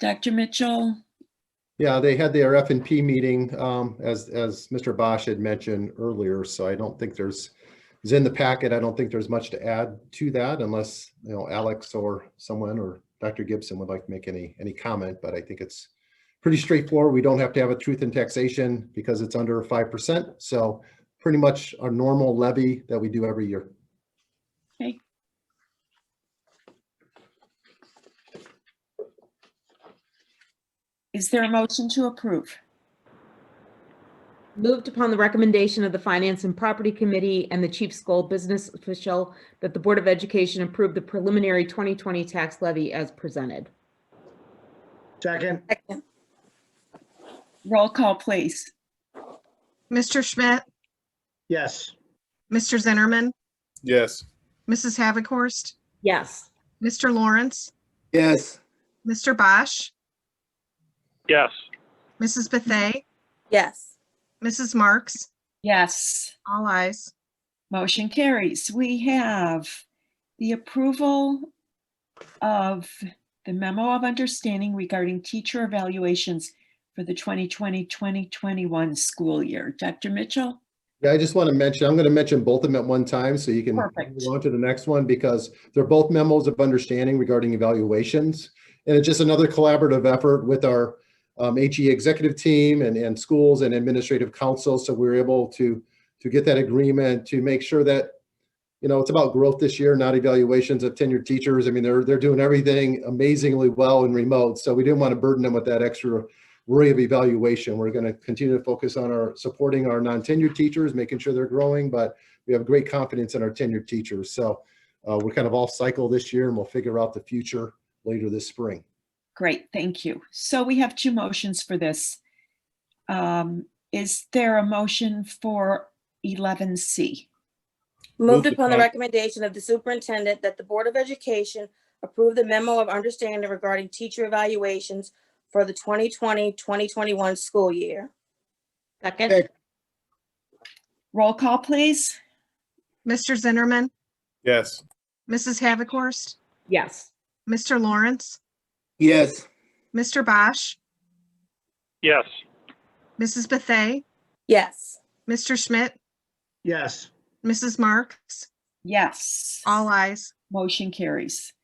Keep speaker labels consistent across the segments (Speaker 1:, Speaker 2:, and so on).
Speaker 1: Dr. Mitchell?
Speaker 2: Yeah, they had their F and P meeting, um, as, as Mr. Bosch had mentioned earlier, so I don't think there's, is in the packet, I don't think there's much to add to that unless, you know, Alex or someone or Dr. Gibson would like to make any, any comment, but I think it's pretty straightforward. We don't have to have a truth in taxation because it's under five percent, so pretty much our normal levy that we do every year.
Speaker 1: Is there a motion to approve?
Speaker 3: Moved upon the recommendation of the Finance and Property Committee and the Chief School Business Official that the Board of Education approve the preliminary 2020 tax levy as presented.
Speaker 4: Second,
Speaker 1: Roll call, please.
Speaker 5: Mr. Schmidt,
Speaker 4: yes.
Speaker 5: Mr. Zinnerman,
Speaker 6: Yes.
Speaker 5: Mrs. Havikhorst,
Speaker 3: Yes.
Speaker 5: Mr. Lawrence,
Speaker 6: Yes.
Speaker 5: Mr. Bosch,
Speaker 6: Yes.
Speaker 5: Mrs. Bethay,
Speaker 7: yes,
Speaker 5: Mrs. Marks,
Speaker 1: Yes,
Speaker 5: all eyes.
Speaker 1: motion carries. We have the approval of the memo of understanding regarding teacher evaluations for the 2020-2021 school year. Dr. Mitchell?
Speaker 2: Yeah, I just want to mention, I'm going to mention both of them at one time so you can move
Speaker 1: Perfect.
Speaker 2: on to the next one because they're both memos of understanding regarding evaluations. And it's just another collaborative effort with our um, HE executive team and, and schools and administrative council. So we we're able to, to get that agreement to make sure that, you know, it's about growth this year, not evaluations of tenured teachers. I mean, they're, they're doing everything amazingly well and remote. So we didn't want to burden them with that extra worry of evaluation. We're going to continue to focus on our, supporting our non-tenured teachers, making sure they're growing, but we have great confidence in our tenured teachers. So uh, we're kind of off cycle this year and we'll figure out the future later this spring.
Speaker 1: Great, thank you. So we have two motions for this. Um, Is there a motion for 11C?
Speaker 6: Moved
Speaker 7: moved upon the
Speaker 6: upon-
Speaker 7: recommendation of the superintendent that the Board of Education approve the memo of understanding regarding teacher evaluations for the 2020, 2021 school year.
Speaker 3: Second?
Speaker 6: Second.
Speaker 1: Roll call, please.
Speaker 5: Mr. Zinnerman,
Speaker 6: Yes.
Speaker 5: Mrs. Havikhorst,
Speaker 3: Yes.
Speaker 5: Mr. Lawrence,
Speaker 6: Yes.
Speaker 5: Mr. Bosch,
Speaker 6: Yes.
Speaker 5: Mrs. Bethay,
Speaker 7: Yes,
Speaker 5: Mr. Schmidt,
Speaker 4: Yes,
Speaker 5: Mrs. Marks,
Speaker 1: Yes.
Speaker 5: all eyes.
Speaker 1: Motion carries.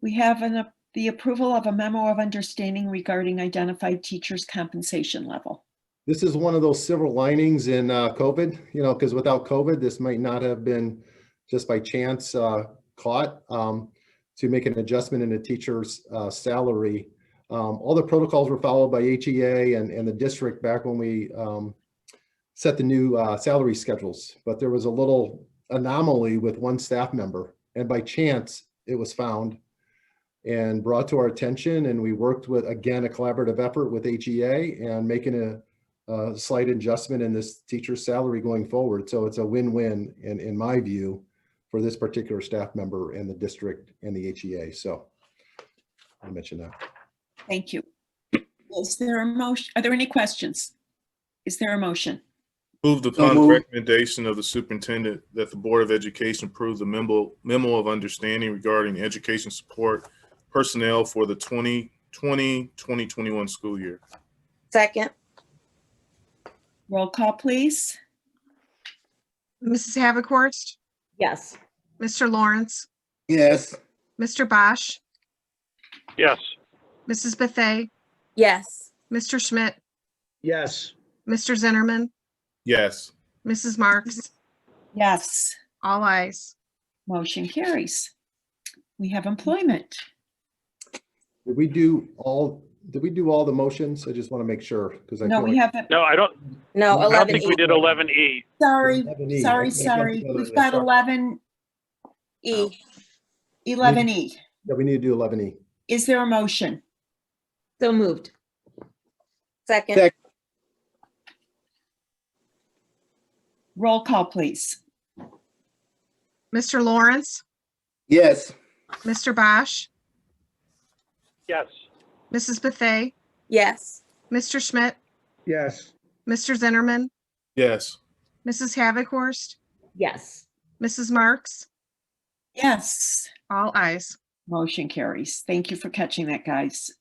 Speaker 1: We have an, ap- the approval of a memo of understanding regarding identified teachers' compensation level.
Speaker 2: This is one of those silver linings in uh, COVID, you know, because without COVID, this might not have been just by chance uh, caught um, to make an adjustment in a teacher's uh, salary. Um, All the protocols were followed by HEA and, and the district back when we um, set the new uh, salary schedules, but there was a little anomaly with one staff member. And by chance, it was found and brought to our attention. And we worked with, again, a collaborative effort with HEA and making a, uh, slight adjustment in this teacher's salary going forward. So it's a win-win in, in my view for this particular staff member and the district and the HEA. So I mentioned that.
Speaker 1: Thank you. Is there a motion, are there any questions? Is there a motion?
Speaker 6: Moved upon the recommendation of the superintendent that the Board of Education approve the memo, memo of understanding regarding education support personnel for the 2020, 2021 school year.
Speaker 7: second,
Speaker 1: Roll call, please.
Speaker 5: Mrs. Havikhorst,
Speaker 3: Yes.
Speaker 5: Mr. Lawrence,
Speaker 6: Yes.
Speaker 5: Mr. Bosch,
Speaker 6: Yes.
Speaker 5: Mrs. Bethay,
Speaker 7: yes,
Speaker 5: Mr. Schmidt,
Speaker 4: yes,
Speaker 5: Mr. Zinnerman,
Speaker 6: Yes.
Speaker 5: Mrs. Marks,
Speaker 1: Yes,
Speaker 5: all eyes.
Speaker 1: motion carries. We have employment.
Speaker 2: Did we do all, did we do all the motions? I just want to make sure because I.
Speaker 1: No,
Speaker 2: feel
Speaker 1: we
Speaker 2: like-
Speaker 1: haven't,
Speaker 8: No, I don't,
Speaker 7: no,
Speaker 8: I don't
Speaker 7: 11
Speaker 8: think we did eleven E.
Speaker 1: sorry,
Speaker 2: Eleven E,
Speaker 1: sorry,
Speaker 2: I think
Speaker 1: sorry.
Speaker 2: that's
Speaker 1: We've
Speaker 2: another-
Speaker 1: got
Speaker 2: sorry.
Speaker 1: 11,
Speaker 7: E,
Speaker 1: 11E.
Speaker 2: Yeah, we need to do eleven E.
Speaker 1: E. Is there a motion?
Speaker 3: So moved.
Speaker 7: second,
Speaker 1: Roll call, please.
Speaker 5: Mr. Lawrence,
Speaker 6: Yes.
Speaker 5: Mr. Bosch,
Speaker 8: Yes,
Speaker 5: Mrs. Bethay,
Speaker 7: yes,
Speaker 5: Mr. Schmidt,
Speaker 4: yes,
Speaker 5: Mr. Zinnerman,
Speaker 6: Yes.
Speaker 5: Mrs. Havikhorst,
Speaker 3: Yes.
Speaker 5: Mrs. Marks,
Speaker 1: Yes.
Speaker 5: all eyes.
Speaker 1: Motion carries. Thank you for catching that, guys.